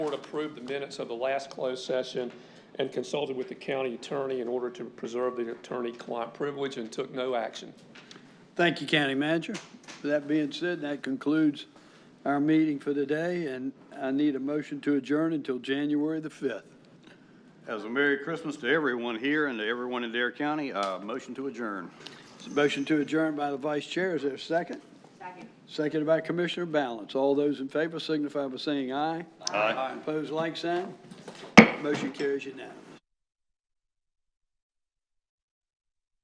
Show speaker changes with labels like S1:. S1: board approved the minutes of the last closed session and consulted with the county attorney in order to preserve the attorney-client privilege and took no action.
S2: Thank you, County Manager. With that being said, that concludes our meeting for today, and I need a motion to adjourn until January the 5th.
S3: As a Merry Christmas to everyone here and to everyone in Dare County. Uh, motion to adjourn.
S2: It's a Motion to adjourn by the Vice Chair, is there a second? Second. Seconded by Commissioner Balance. All those in favor signify by saying aye. Aye. Opposed, like sign. Motion carries unanimous.